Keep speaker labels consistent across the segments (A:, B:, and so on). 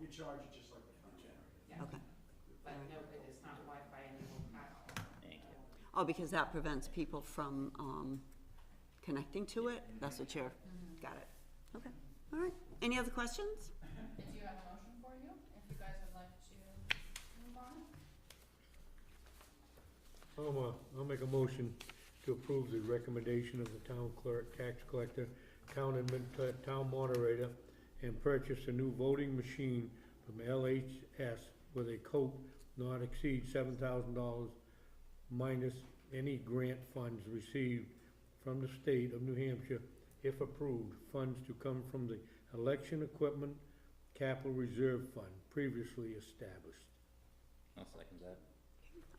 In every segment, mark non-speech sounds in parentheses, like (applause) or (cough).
A: You charge it just like the front generator.
B: Yeah.
C: Okay.
B: But no, it is not Wi-Fi enabled at all.
C: Thank you. Oh, because that prevents people from, um, connecting to it? That's what you're,
B: Mm-hmm.
C: got it. Okay, all right. Any other questions?
D: I do have a motion for you, if you guys would like to move on.
E: I'll, uh, I'll make a motion to approve the recommendation of the town clerk, tax collector, town admin, uh, town moderator, and purchase a new voting machine from LHS with a cope not exceed seven thousand dollars minus any grant funds received from the state of New Hampshire, if approved, funds to come from the election equipment capital reserve fund previously established.
F: I'll second that.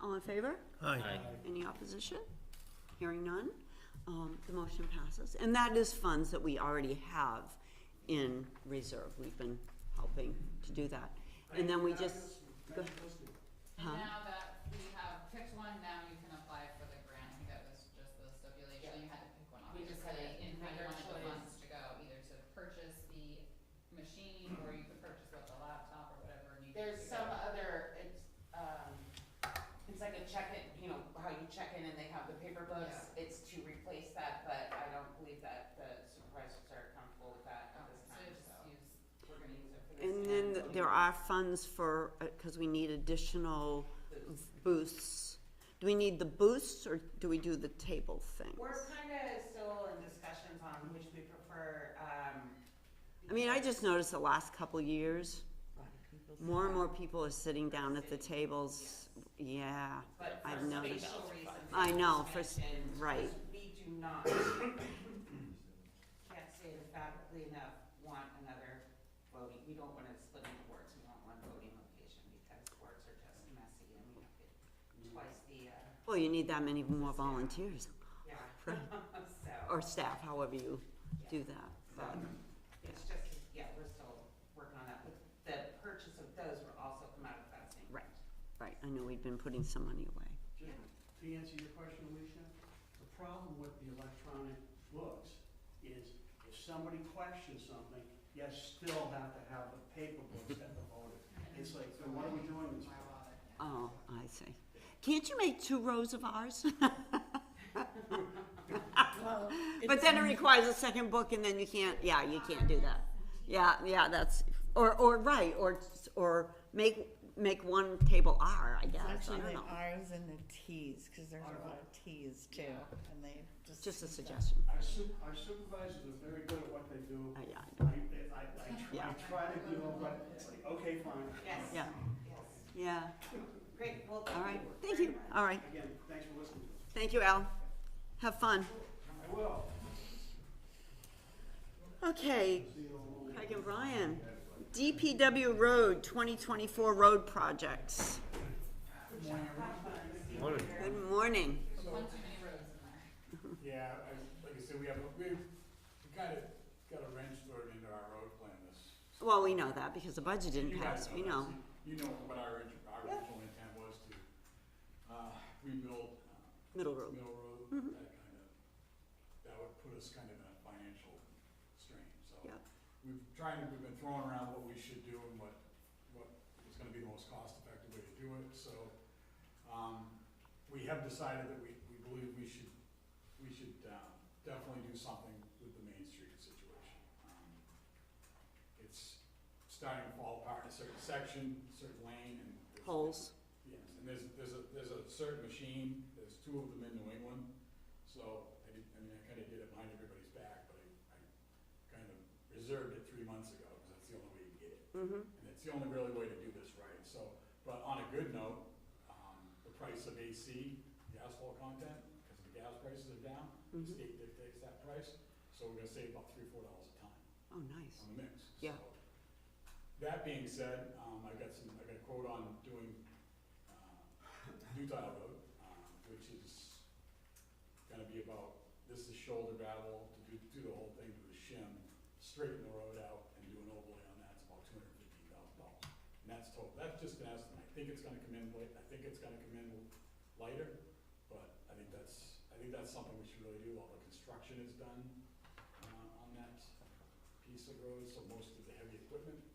C: All in favor?
F: Aye.
C: Any opposition? Hearing none, um, the motion passes. And that is funds that we already have in reserve. We've been helping to do that. And then we just,
A: Now you listed it.
C: Huh?
D: And now that we have picked one, now you can apply for the grant, I think that was just the
B: Yeah.
D: stipulation, you had to pick one,
B: We
D: obviously.
B: just had a-
D: And
B: had
D: you
B: your
D: wanted the
B: choice.
D: funds to go, either to purchase the machine, or you could purchase with the laptop, or whatever needs to go.
B: There's some other, it's, um, it's like a check-in, you know, how you check in and they have the paper books. It's to replace that, but I don't believe that the supervisors are comfortable with that at
D: Okay,
B: this
D: So
B: time,
D: just
B: so
D: use,
B: we're gonna use it for this.
C: and then
B: now.
C: there are funds for, uh, cause we need additional booths. Do we need the booths or do we do the table thing?
B: We're kinda still in discussions on which we prefer, um.
C: I mean, I just noticed the last couple years, more and more people are sitting down at the tables, yeah.
B: But for
C: I've
B: spatial
C: noticed.
B: reasons.
C: I
B: it
C: know,
B: was
C: for s-
B: mentioned,
C: right.
B: We do not, (coughs) can't say it emphatically enough, want another voting, we don't wanna split into wards, we want one voting location because wards are just messy and we have it twice the, uh,
C: Well, you need that many more volunteers
B: yeah,
C: Right.
B: (laughs) so,
C: or staff, however you do that.
B: so,
C: But
B: it's just, yeah, we're still working on that, but the purchase of those will also come out of that same.
C: Right. Right, I know we've been putting some money away.
A: Just to answer your question, Alicia, the problem with the electronic books is if somebody questions something, you still have to have the paper books at the voter. It's like, so what are we doing this
D: my
A: for?
D: wallet, yeah.
C: Oh, I see. Can't you make two rows of ours? (laughs) But then it requires a second book and then you can't, yeah, you can't do that. Yeah, yeah, that's, or, or, right, or, or make, make one table R, I guess, I
G: Actually,
C: don't
G: the
C: know.
G: Rs and the Ts, because there's a lot of Ts too, and they just.
C: Just a
G: use that.
C: suggestion,
A: Our su- our supervisors are very good at what they do.
C: Uh, yeah,
A: I, I, I try, I
C: Yeah.
A: try to do, it, but it's like, okay, fine.
B: Yes,
C: yeah,
B: yes,
C: yeah,
B: great, well,
C: all
B: thank
C: right,
B: you
C: thank
B: very
C: you,
B: much.
C: all right,
A: Again, thanks for listening to us.
C: thank you, Al. Have fun.
A: I will.
C: Okay, Craig and Brian, DPW Road, twenty twenty-four road projects.
E: Morning.
C: Good morning.
D: One too many rows in there.
H: Yeah, I, like I said, we have, a- we, we kind of got a wrench thrown into our road plan this.
C: Well, we know that because the budget didn't
H: You guys
C: pass, we
H: that.
C: know.
H: You know what our, orig- our original intent was to, uh, rebuild, uh,
C: Middle road.
H: Mill Road, that kind of, that would put us kind of in a financial strain, so.
C: Yep.
H: We've tried, to- we've been throwing around what we should do and what, what is gonna be the most cost-effective way to do it, so, um, we have decided that we, we believe we should, we should, um, definitely do something with the Main Street situation. Um, It's starting to fall apart in a certain section, certain lane, and. there's-
C: Holes.
H: Yes, and there's, there's a, there's a certain machine, there's two of them in New England, so I did, I mean, I kinda did it behind everybody's back, but I, I kind of reserved it three months ago, cause that's the only way you get it. And it's the only really way to do this right, so, but on a good note, um, the price of AC, the asphalt content, cause the gas prices are down, the state dictates that price, so we're gonna save about three, four dollars a ton
C: Oh, nice.
H: on the mix.
C: Yeah.
H: So, That being said, um, I got some, I got a quote on doing, uh, New Tile Road, um, which is gonna be about, this is shoulder gravel, to do, do the whole thing to the shim, straighten the road out and do an overlay on that, it's about two hundred fifteen thousand dollars. And that's total, that's just an estimate, I think it's gonna come in late, I think it's gonna come in lighter, but I think that's, I think that's something we should really do, all the construction is done, uh, on that piece of road, so most of the heavy equipment